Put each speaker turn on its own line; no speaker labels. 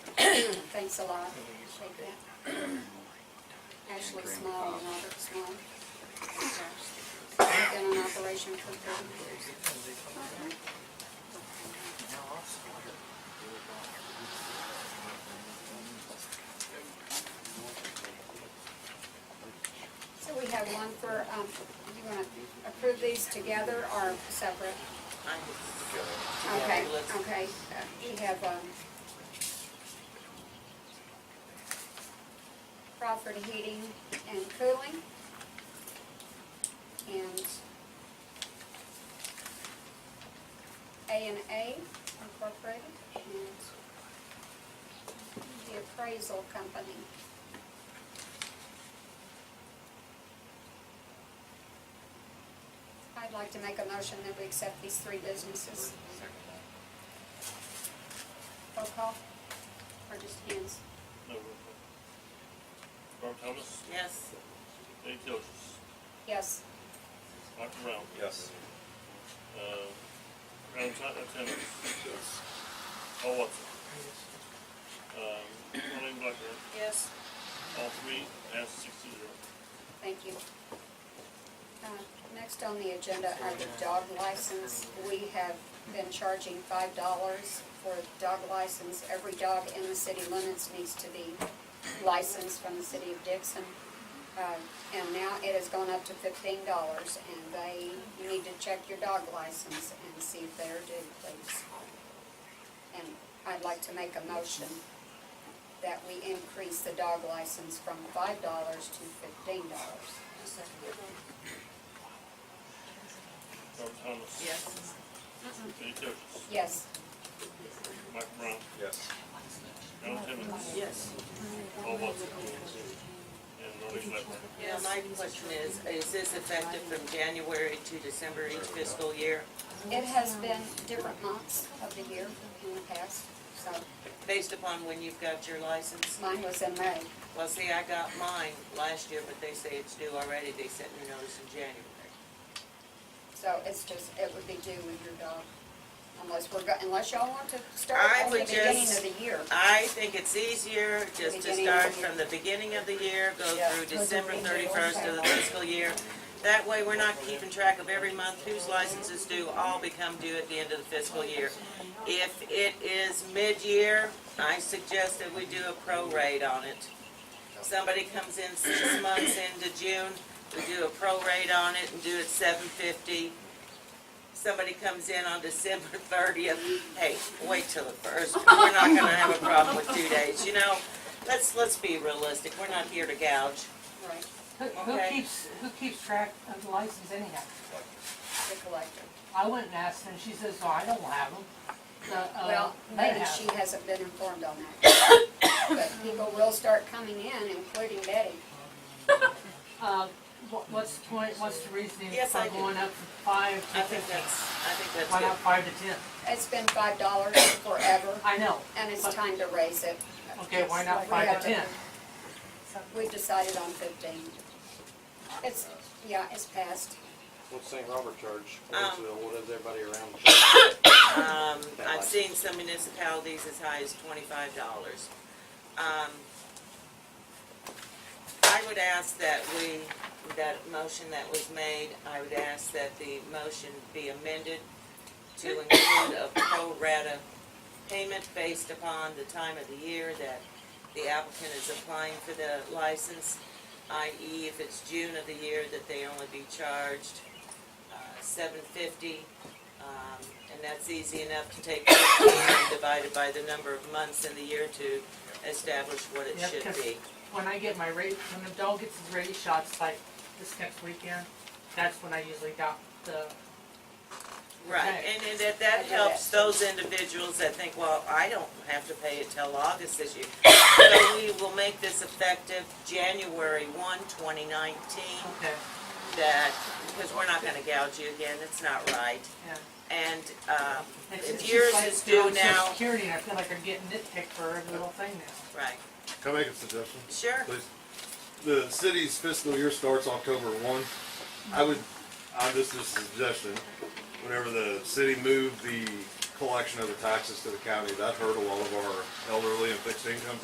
thanks a lot. Thank you. Ashley Small and Robert Small. They've been in operation for thirty years. So we have one for, um, you wanna approve these together or separate? Okay, okay, Uh, we have, um, Crawford Heating and Cooling, and A and A Incorporated, and the Appraisal Company. I'd like to make a motion that we accept these three businesses. Roll call, or just hands?
No roll call. Norm Thomas,
Yes.
Dave Joseph,
Yes.
Michael Brown,
Yes.
uh, Brown Ti- uh, Timmons,
Yes.
Paul Watson. Um, Colleen Blackburn,
Yes.
all three, passed six to zero.
Thank you. Uh, Next on the agenda are the dog license. We have been charging five dollars for a dog license. Every dog in the city limits needs to be licensed from the city of Dixon. Uh, And now it has gone up to fifteen dollars, and they, you need to check your dog license and see if they're due, please. And I'd like to make a motion that we increase the dog license from five dollars to fifteen dollars.
Norm Thomas.
Yes.
Dave Joseph,
Yes,
Michael Brown,
Yes.
Brown Timmons,
Yes.
Paul Watson. And Colleen Blackburn.
Yeah, my question is, is this effective from January to December each fiscal year?
it has been different months of the year in the past, so
Based upon when you've got your license?
mine was in May.
Well, see, I got mine last year, but they say it's due already. They sent me notice in January.
So it's just, it would be due with your dog, unless we're, go- unless y'all want to start
I
at the
would
beginning
just-
of the year.
I think it's easier just to
Beginning of the
start
year.
from the beginning of the year, go
Yeah.
through December thirty-first of the fiscal year. That way, we're not keeping track of every month whose licenses due, all become due at the end of the fiscal year. If it is mid-year, I suggest that we do a prorate on it. Somebody comes in six months into June, we do a prorate on it and do it seven fifty. Somebody comes in on December thirtieth, hey, wait till the first, we're not gonna have a problem with two days, you know? Let's, let's be realistic, we're not here to gouge.
Right,
Who, who
Okay.
keeps, who keeps track of the license anyhow?
the collector.
I went and asked her, and she says, oh, I don't have them. The, uh,
Well,
they
maybe
have.
she hasn't been informed on that. But people will start coming in, including Betty.
Uh, what, what's the point, what's the reasoning
Yes, I
for
do.
going up from five
I
to
think
fifteen?
that's, I think that's
Why not
good.
five to ten?
It's been five dollars forever,
I know,
and it's
But-
time to raise it.
okay, why not
We
five to
haven't-
ten?
We decided on fifteen. It's, yeah, it's passed.
What's St. Robert charge?
Um,
What's the- What does everybody around charge?
Um, I've seen some municipalities as high as twenty-five dollars. Um, I would ask that we, that motion that was made, I would ask that the motion be amended to include a pro rata payment based upon the time of the year that the applicant is applying for the license, i.e. if it's June of the year, that they only be charged, uh, seven fifty um, And that's easy enough to take 15 and divide it by the number of months in the year to establish what it
Yep,
should
'cause-
be.
When I get my rate, when the dog gets his rabies shots, like this next weekend, that's when I usually got the,
Right,
Right.
and and that,
I
that
do
helps
that.
those individuals that think, well, I don't have to pay it till August this year. So we will make this effective January 1, 2019,
okay,
that, because we're not gonna gouge you again, it's not right.
yeah.
And um,
It's- it's
if
just
yours
like
is
they're on
due
Social
now,
Security, and I feel like I'm getting nitpicked for every little thing now.
right,
Can I make a suggestion,
sure,
please? The city's fiscal year starts October one. I would, I'm just a suggestion, whenever the city moved the collection of the taxes to the county, that hurt a lot of our elderly and fixed income